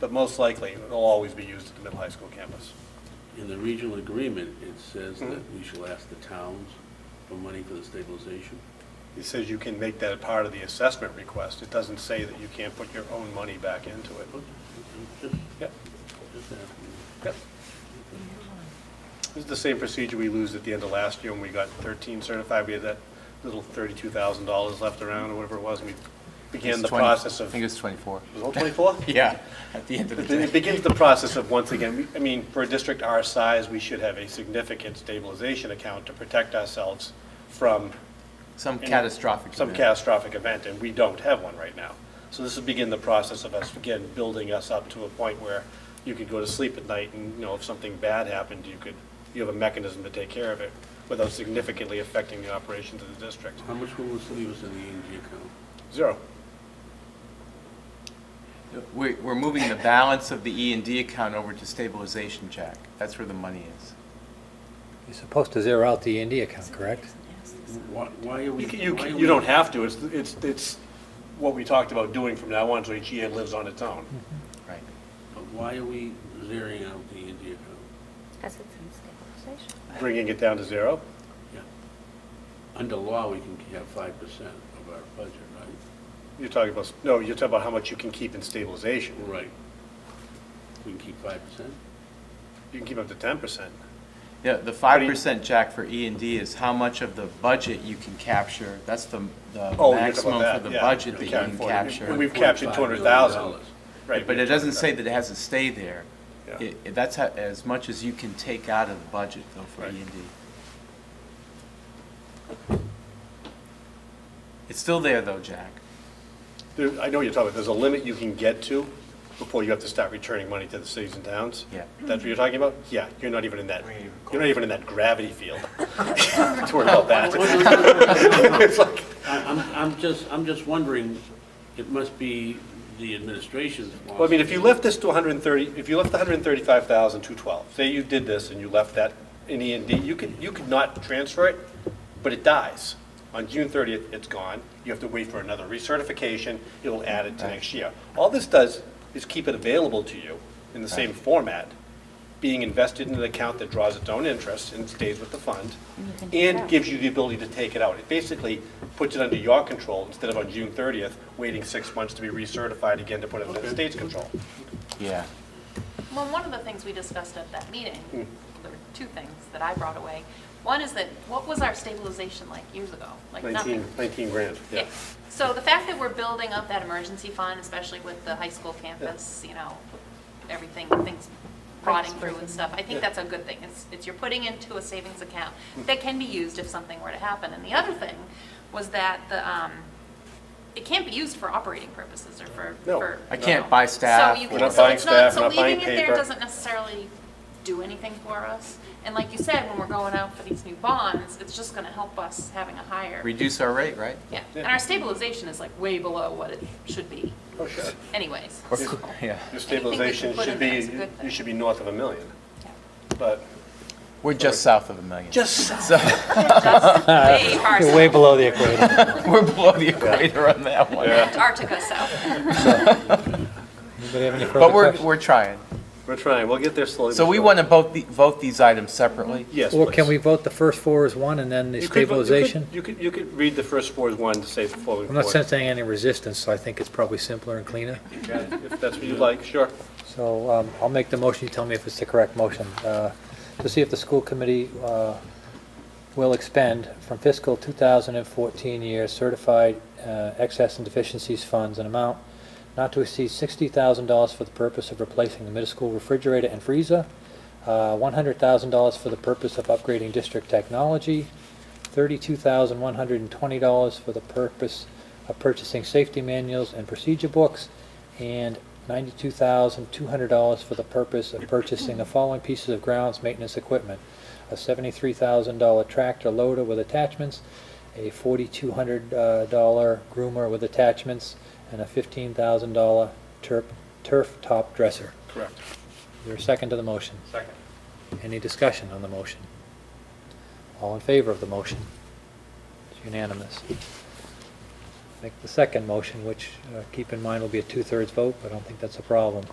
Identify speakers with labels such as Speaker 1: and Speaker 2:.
Speaker 1: but most likely, it'll always be used at the middle high school campus.
Speaker 2: In the regional agreement, it says
Speaker 1: Mhm.
Speaker 2: that we shall ask the towns for money for the stabilization.
Speaker 1: It says you can make that a part of the assessment request. It doesn't say that you can't put your own money back into it.
Speaker 2: Okay, I'm just-
Speaker 1: Yep,
Speaker 2: just asking.
Speaker 1: yep. This is the same procedure we used at the end of last year when we got 13 certified. We had that little $32,000 left around or whatever it was, and we began
Speaker 3: It's
Speaker 1: the
Speaker 3: 20
Speaker 1: process
Speaker 3: I
Speaker 1: of,
Speaker 3: think it
Speaker 1: was
Speaker 3: was 24.
Speaker 1: it all 24?
Speaker 3: Yeah, at the end of the
Speaker 1: It
Speaker 3: day.
Speaker 1: it begins the process of, once again, we- I mean, for a district our size, we should have a significant stabilization account to protect ourselves from
Speaker 3: Some
Speaker 1: any-
Speaker 3: catastrophic.
Speaker 1: Some
Speaker 3: event.
Speaker 1: catastrophic event, and we don't have one right now. So this will begin the process of us, again, building us up to a point where you could go to sleep at night and, you know, if something bad happened, you could, you have a mechanism to take care of it without significantly affecting the operations of the district.
Speaker 2: How much will this leave us in the E&G account?
Speaker 1: Zero.
Speaker 3: We're, we're moving the balance of the E and D account over to stabilization, Jack. That's where the money is.
Speaker 4: You're supposed to zero out the E&D account, correct?
Speaker 2: Why why are we?
Speaker 1: You, can- you,
Speaker 2: why are
Speaker 1: can-
Speaker 2: we-
Speaker 1: you don't have to, it's, it's, it's what we talked about doing from now on, so each year lives on its own.
Speaker 3: Right.
Speaker 2: But why are we zeroing out the E&G account?
Speaker 5: Because it's in stabilization.
Speaker 1: Bringing it down to zero,
Speaker 2: Yeah. Under law, we can have five percent of our budget, right?
Speaker 1: you're talking about, no, you're talking about how much you can keep in stabilization.
Speaker 2: Right. We can keep five percent?
Speaker 1: You can keep up to ten percent.
Speaker 3: Yeah, the five percent, Jack, for E and D is how much of the budget you can capture. That's the, the
Speaker 1: Oh, you're talking
Speaker 3: maximum
Speaker 1: about
Speaker 3: for
Speaker 1: that,
Speaker 3: the
Speaker 1: yeah.
Speaker 3: budget that
Speaker 1: Okay.
Speaker 3: you can
Speaker 1: For-
Speaker 3: capture.
Speaker 1: We've captured
Speaker 2: $245 million.
Speaker 1: $200,000. Right.
Speaker 3: But it doesn't say that it has to stay there.
Speaker 1: Yeah.
Speaker 3: It- it- That's how- as much as you can take out of the budget though for E
Speaker 1: Right.
Speaker 3: and D. It's still there though, Jack.
Speaker 1: There, I know what you're talking about, there's a limit you can get to before you have to start returning money to the cities and towns?
Speaker 3: Yeah.
Speaker 1: That's what you're talking about? Yeah, you're not even in that,
Speaker 3: We ain't even
Speaker 1: you're not even in that gravity field. Don't worry about that. It's like,
Speaker 2: I- I'm, I'm just, I'm just wondering, it must be the administration's
Speaker 1: well, I mean, if you left this to 130, if you left the 135,212, say you did this and you left that in E and D, you could, you could not transfer it, but it dies. On June 30th, it's gone, you have to wait for another recertification, it'll add it to next year. All this does is keep it available to you in the same format, being invested in an account that draws its own interest and stays with the fund,
Speaker 5: And you can take it
Speaker 1: and
Speaker 5: out.
Speaker 1: gives you the ability to take it out. It basically puts it under your control instead of on June 30th, waiting six months to be recertified again to put it under the state's control.
Speaker 3: Yeah.
Speaker 6: Well, one of the things we discussed at that meeting, there were two things that I brought away. One is that, what was our stabilization like years ago? Like nothing.
Speaker 1: 19, 19 grand, yeah.
Speaker 6: Yeah. So the fact that we're building up that emergency fund, especially with the high school campus, you know, everything, things rotting through and stuff, I
Speaker 1: Yeah.
Speaker 6: think that's a good thing. It's, it's you're putting into a savings account that can be used if something were to happen. And the other thing was that the, um, it can't be used for operating purposes or for.
Speaker 1: No.
Speaker 6: for-
Speaker 3: I can't buy staff.
Speaker 6: So you
Speaker 3: or-
Speaker 1: We're not
Speaker 6: can, so
Speaker 1: buying
Speaker 6: it's
Speaker 1: staff,
Speaker 6: not,
Speaker 1: we're
Speaker 6: so
Speaker 1: not buying
Speaker 6: leaving it there
Speaker 1: paper.
Speaker 6: doesn't necessarily do anything for us. And like you said, when we're going out for these new bonds, it's just gonna help us having a higher.
Speaker 3: Reduce our rate, right?
Speaker 6: Yeah,
Speaker 1: Yeah.
Speaker 6: and our stabilization is like way below what it should be
Speaker 1: Oh, sure.
Speaker 6: anyways.
Speaker 3: Or-
Speaker 6: so-
Speaker 3: Yeah.
Speaker 1: Your stabilization
Speaker 6: put
Speaker 1: should
Speaker 6: in there is a
Speaker 1: be,
Speaker 6: good
Speaker 1: you
Speaker 6: thing.
Speaker 1: should be north of a million,
Speaker 6: Yeah.
Speaker 1: but.
Speaker 3: We're just south of a million.
Speaker 1: Just.
Speaker 3: So
Speaker 6: Just way far
Speaker 4: You're way
Speaker 6: south,
Speaker 4: below the equator.
Speaker 3: we're below the equator on that one.
Speaker 6: Antarctica south.
Speaker 4: Anybody have any further
Speaker 3: But we're,
Speaker 4: questions?
Speaker 3: we're trying.
Speaker 1: We're trying, we'll get there slowly.
Speaker 3: So
Speaker 1: but
Speaker 3: we
Speaker 1: surely.
Speaker 3: want to vote, the- vote these items separately.
Speaker 1: Yes,
Speaker 4: Or can
Speaker 1: please.
Speaker 4: we vote the first four as one and then the
Speaker 1: You could vote- you could-
Speaker 4: stabilization?
Speaker 1: You could, you could read the first four as one to say the following.
Speaker 4: I'm not
Speaker 1: four.
Speaker 4: sensing any resistance, so I think it's probably simpler and cleaner.
Speaker 1: Yeah, If that's what you'd like, sure.
Speaker 4: So um, I'll make the motion, you tell me if it's the correct motion, uh, to see if the school committee uh, will expend from fiscal 2014 year certified uh, excess and deficiencies funds an amount not to exceed $60,000 for the purpose of replacing the middle school refrigerator and freezer, uh, $100,000 for the purpose of upgrading district technology, $32,120 for the purpose of purchasing safety manuals and procedure books, and $92,200 for the purpose of purchasing the following pieces of grounds maintenance equipment: a $73,000 tractor loader with attachments, a $4,200 uh, dollar groomer with attachments, and a $15,000 turf, turf top dresser.
Speaker 1: Correct.
Speaker 4: Is there a second to the motion?
Speaker 1: Second.
Speaker 4: Any discussion on the motion? All in favor of the motion? It's unanimous. Make the second motion, which, uh, keep in mind, will be a two-thirds vote, but I don't think that's a problem.